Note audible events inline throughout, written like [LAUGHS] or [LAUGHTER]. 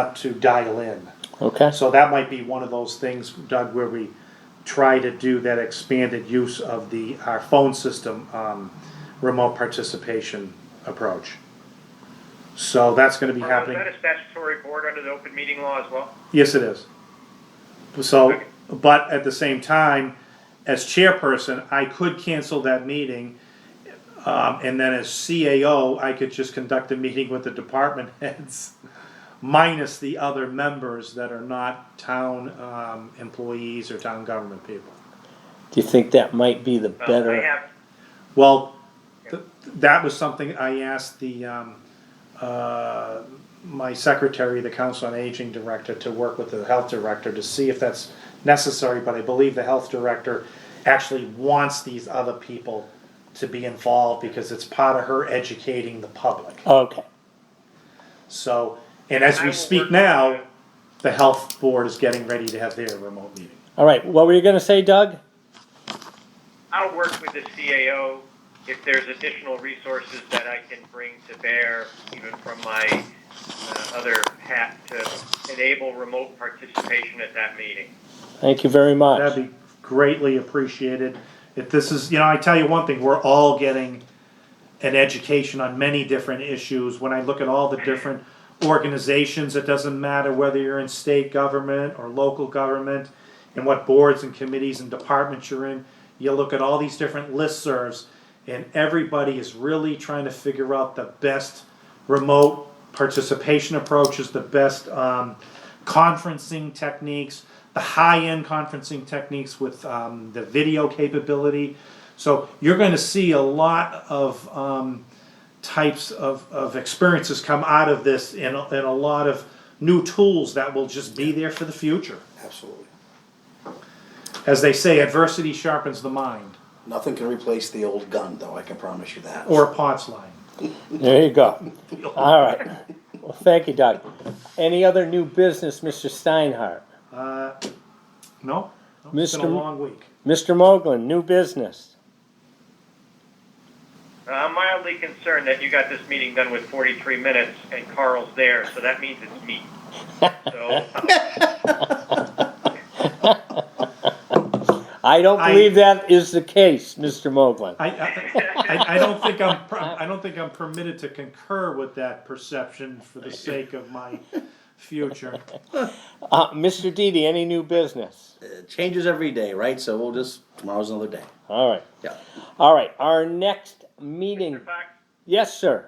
not to dial in. Okay. So that might be one of those things, Doug, where we try to do that expanded use of the, our phone system, um, remote participation approach. So that's gonna be Carl, Is happening, that Uh, a statutory board under the open meeting law as well? yes, it is. So, but at the same time, as chairperson, I could cancel that meeting. Um, and then as CAO, I could just conduct a meeting with the department [LAUGHS] heads minus the other members that are not town, um, employees or town government people. Do you think that might be the Uh, better? I have, Well, th- that was something I asked the, um, uh, my secretary, the council on aging director, to work with the health director to see if that's necessary, but I believe the health director actually wants these other people to be involved because it's part of her educating the public. Okay. So, and as I we will speak work on now, that. the health board is getting ready to have their remote meeting. All right. What were you going to say, Doug? I'll work with the CAO if there's additional resources that I can bring to bear, even from my uh, other hat, to enable remote participation at that meeting. Thank you very much. That'd be greatly appreciated. If this is, you know, I tell you one thing, we're all getting an education on many different issues. When I look at all the different organizations, it doesn't matter whether you're in state government or local government and what boards and committees and departments you're in. You look at all these different listservs and everybody is really trying to figure out the best remote participation approaches, the best um, conferencing techniques, the high-end conferencing techniques with um, the video capability. So you're going to see a lot of um, types of, of experiences come out of this, and, a- and a lot of new tools that will just be there for the future. Absolutely. As they say, adversity sharpens the mind, Nothing can replace the old gun, though, I can promise you that. or a pot's line. There [LAUGHS] you go. All right. Well, thank you, Doug. Any other new business, Mr. Steinhardt? Uh, no? No, It's been a Mr. long week. Mr. Moglen, new business. Uh, I'm mildly concerned that you got this meeting done with 43 minutes and Carl's there, so that means it's me. So, I don't I- believe that is the case, Mr. Moglen. I, I, I- I don't think I'm, per- I don't think I'm permitted to concur with that perception for the sake of my future. Uh, Mr. Didi, any new business? It changes every day, right? So we'll just, tomorrow's another day. All right. Yeah. All right. Our next meeting. Mr. Fox, Yes, sir.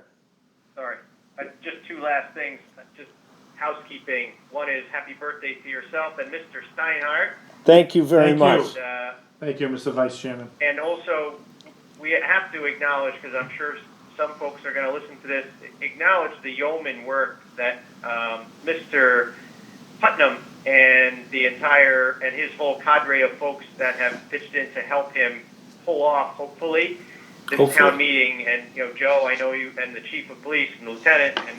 Sorry. Uh, Just two last things, uh, just housekeeping. One is happy birthday to yourself and Mr. Steinhardt. Thank you very Thank much. you. Uh, Thank you, Mr. Vice Chairman. And also, we have to acknowledge, because I'm sure some folks are going to listen to this, acknowledge the yeoman work that um, Mr. Putnam and the entire, and his whole cadre of folks that have pitched in to help him pull off, hopefully, this Hopefully. town meeting. And, you know, Joe, I know you, and the chief of police and lieutenant, and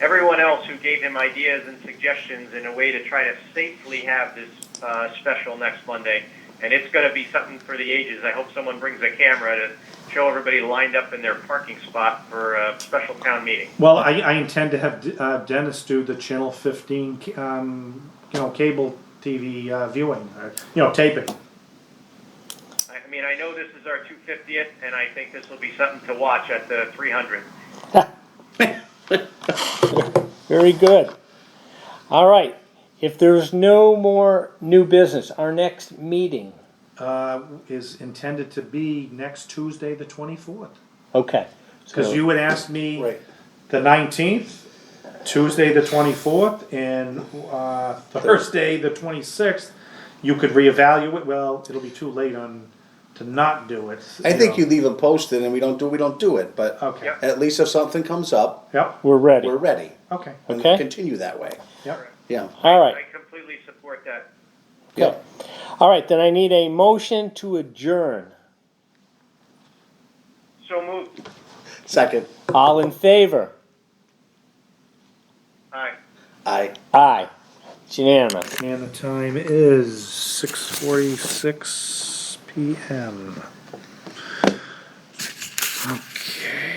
everyone else who gave him ideas and suggestions in a way to try to safely have this uh, special next Monday. And it's going to be something for the ages. I hope someone brings a camera to show everybody lined up in their parking spot for a special town meeting. Well, I, I intend to have D- uh, Dennis do the Channel 15, ca- um, you know, cable TV uh, viewing, uh, you know, taping. I I mean, I know this is our 250th, and I think this will be something to watch at the 300th. Very good. All right. If there's no more new business, our next meeting. Uh, is intended to be next Tuesday, the 24th. Okay. Because So- you would ask me Right. the 19th, Tuesday, the 24th, and uh, Thursday, the 26th. You could reevaluate. Well, it'll be too late on to not do it. I think know. you leave them posted and we don't do, we don't do it, but Okay. Yep. at least if something comes up, Yep. We're ready. we're ready. Okay. And Okay. continue that way. Yep. Yeah. All right. I completely support that. Yeah. All right, then I need a motion to adjourn. So moved. Second, All in favor? Aye. I. Aye. It's unanimous. And the time is 6:46 p.m. Okay.